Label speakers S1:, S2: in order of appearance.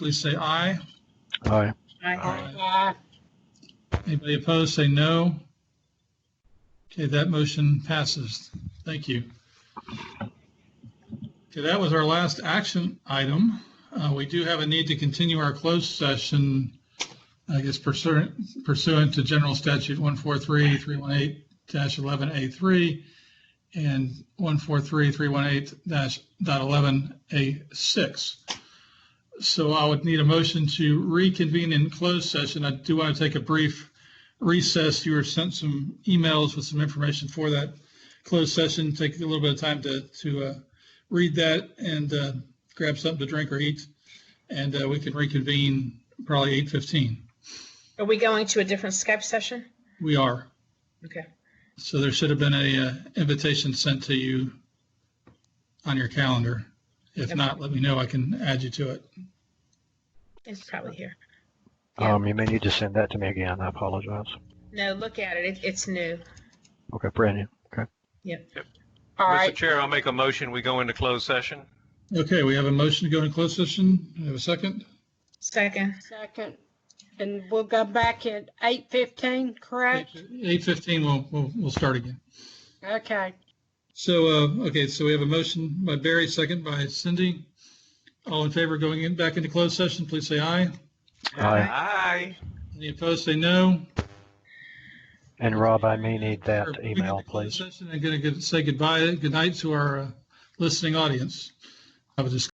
S1: please say aye.
S2: Aye.
S3: Aye.
S1: Anybody opposed, say no. Okay, that motion passes. Thank you. Okay, that was our last action item. Uh, We do have a need to continue our closed session, I guess pursuant pursuant to General Statute 143-318-11A3 and 143-318-11A6. So I would need a motion to reconvene in closed session. I do want to take a brief recess. You were sent some emails with some information for that closed session. Take a little bit of time to, to uh, read that and uh, grab something to drink or eat. And uh, we can reconvene probably 8:15.
S3: Are we going to a different Skype session?
S1: We are.
S3: Okay.
S1: So there should have been a uh, invitation sent to you on your calendar. If
S3: Okay.
S1: not, let me know. I can add you to it.
S3: It's probably here. Yeah.
S2: Um, you may need to send that to me again. I apologize.
S3: No, look at it. it it's new.
S2: Okay, brand new. Okay.
S3: All
S4: Mr.
S3: right.
S4: Chair, I'll make a motion, we go into closed session.
S1: Okay, we have a motion to go into closed session. Do I Have a second?
S3: Second.
S5: Second, and we'll go back at eight fifteen, correct?
S1: 8:15, we'll, we'll, we'll start again.
S5: Okay,
S1: So, uh, okay, so we have a motion by Barry, second by Cindy. All in favor going in, back into closed session, please say aye.
S2: Aye.
S4: Aye.
S1: Any opposed, say no.
S2: And Rob, I may need that
S1: Or we can
S2: email,
S1: close
S2: please.
S1: session And going to say goodbye, good night to our uh, listening audience. Have a discussion.